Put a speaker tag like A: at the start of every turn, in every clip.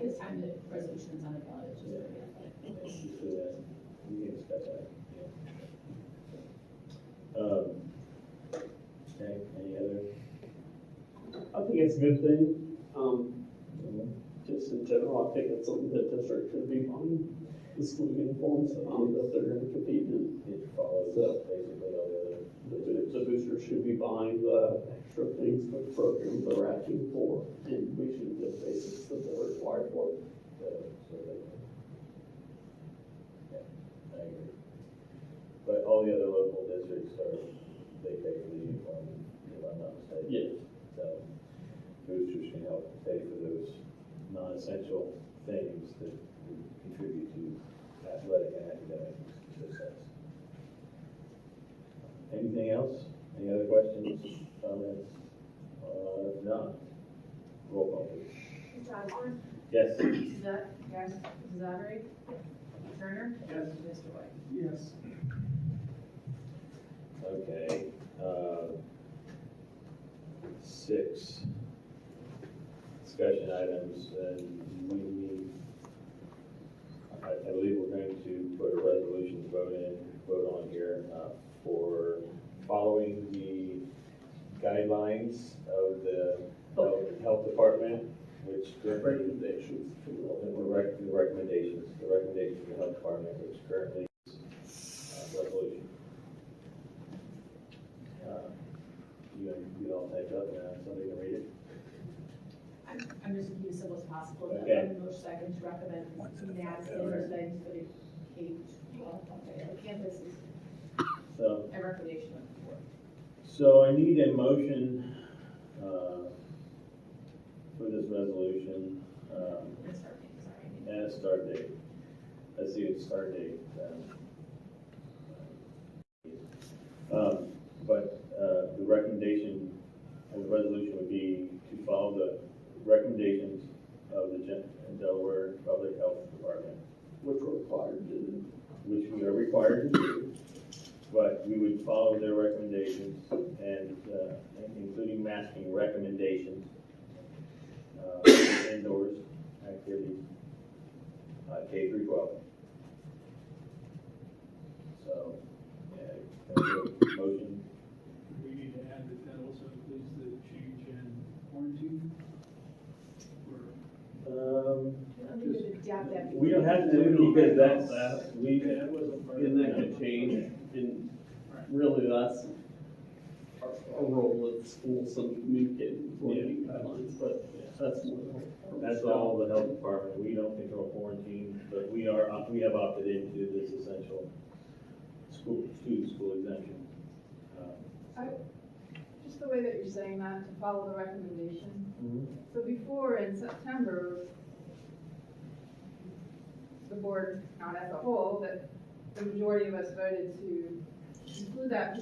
A: first time the resolution's on the ballot, it's just very athletic.
B: We can discuss that, yeah. Um, okay, any other?
C: I think it's a good thing, um, just in general, I think it's something that district should be buying, the school uniforms, um, that they're gonna compete in.
B: It follows
C: So-
B: basically all the other,
C: The, boo- the boosters should be buying the extra things for the program they're asking for, and we should get basics that they're required for.
B: uh, so they. Yeah, I agree. But all the other local districts are, they pay for the uniform, if I'm not mistaken.
C: Yes.
B: So boosters can help pay for those non-essential things that would contribute to athletic and academic success. Anything else? Any other questions, comments? Uh, if not, roll call please.
D: Mr. Osborne?
B: Yes,
D: Mrs. Dutt? Yes. Mrs. Avery? Mr. Turner?
C: Yes.
D: Mr. White?
C: Yes.
B: okay, uh, six. Discussion items, and we need, I, I believe we're going to put a resolution vote in, vote on here, uh, for following the guidelines of the health- health department, which currently
C: Recommendations to
B: Well,
C: the
B: then we're rec- The recommendations, the recommendation of the health department, which currently is uh, resolution. Uh, You, you all typed up, now somebody can read it?
A: I'm, I'm just being as simple as possible, but
B: Okay.
A: I'm most second to recommend NASC things for the K twelve, okay, the campus is
B: So,
A: a recommendation of the board.
B: so I need a motion, uh, for this resolution, um,
A: That's our thing, sorry.
B: and a start date. Let's see, a start date, um, Um, But uh, the recommendation of the resolution would be to follow the recommendations of the Gen- Delaware Public Health Department,
C: which were required in
B: which we are required to do, but we would follow their recommendations and, uh, including masking recommendations, uh, indoors activities, uh, K through twelve. So, yeah, can I get a motion
E: We need to add that that also includes the change in quarantine. Or
B: Um,
A: I don't think we'd adapt that.
B: we don't have to do it because that's, uh, we,
E: that wasn't part of.
C: And that could change, and really, that's our, our role at school, so communicating for any guidelines, but that's more.
B: that's all the health department, we don't control quarantine, but we are, uh, we have opted into this essential school, student school exemption. Um,
F: Just the way that you're saying that, to follow the recommendation.
B: Mhm.
F: So before in September, the board, not as a whole, but the majority of us voted to include that,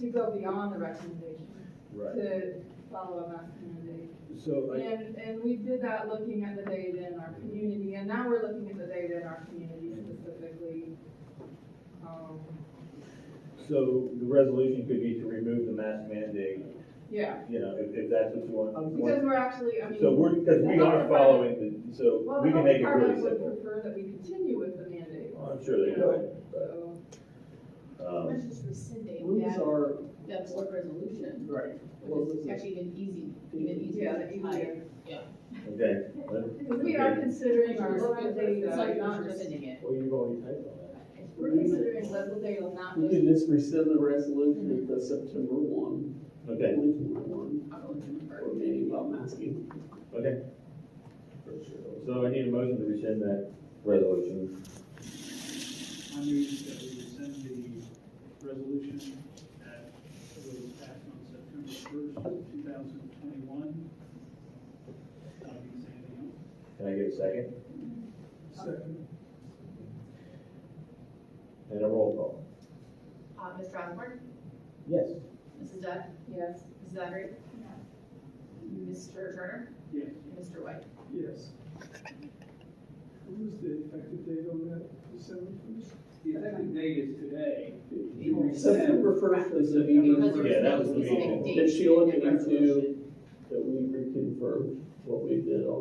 F: to go beyond the recommendation,
B: Right,
F: to follow a mask mandate.
B: so I,
F: And, and we did that looking at the data in our community, and now we're looking at the data in our community specifically. Um,
B: so the resolution could be to remove the mask mandate,
F: Yeah,
B: you know, if, if that's what you
F: Oh, because
B: want.
F: we're actually, I mean.
B: So we're, because we are following the, so
F: Well,
B: we
F: the
B: can
F: health
B: make it really
F: department would
B: simple.
F: prefer that we continue with the mandate,
B: I'm sure they could, but,
F: so.
B: um,
A: Let's just rescinding
C: Rules
A: that,
C: are,
A: that board resolution,
C: right,
A: which is actually even easy, even easier
F: Yeah, the
A: to tie.
F: easier.
B: okay.
F: Because we are considering our local
A: It's like
F: data,
A: you're
F: not just.
A: rescinding it.
B: Well, you've already typed on that.
F: We're considering local data, not
C: we
F: just.
C: can just rescind the resolution at the September one,
B: Okay,
C: twenty twenty-one,
A: I'll go with you first.
C: or maybe about masking.
B: okay. So I need a motion to rescind that resolution.
E: I move that we rescind the resolution that was passed on September first, two thousand twenty-one. Not gonna say anything
B: Can I get a second?
E: else. Second.
B: And a roll call?
A: Uh, Mr. Osborne,
B: Yes.
A: Mrs. Dutt,
F: Yes,
A: Mrs. Avery? Mr. Turner?
E: Yes.
A: And Mr. White?
E: Yes. What was the effective date on that, December first? The effective date is today.
C: September first is the
A: Because
C: number
A: there
B: Yeah, that
A: no
B: was the
A: specific
B: meeting.
A: date
C: Did she look
A: in the
C: into-
A: resolution.
C: that we reconfirmed what we did on.